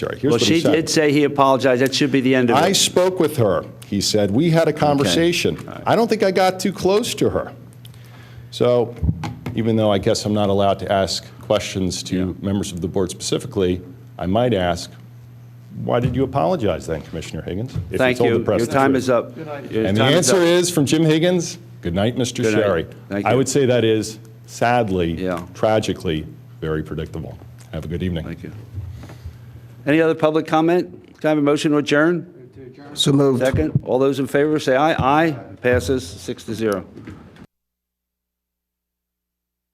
Jerry, here's Well, what he she said. did say he apologized. That should be the end of I it. spoke with her. He said, we had a conversation. I don't think I got too close to her. So even though I guess I'm not allowed to ask questions to members of the board specifically, I might ask, why did you apologize then, Commissioner Higgins? if Thank told the you. press Your the time truth? is up. Your And the time answer up. is, from Jim Higgins, good night, Mr. Good night. Sherry. Thank I you. would say that is sadly, Yeah. tragically, very predictable. Have a good evening. Thank you. Any other public comment? Can I have a motion to adjourn? So moved. Second, all those in favor, say aye. Aye, passes six to zero.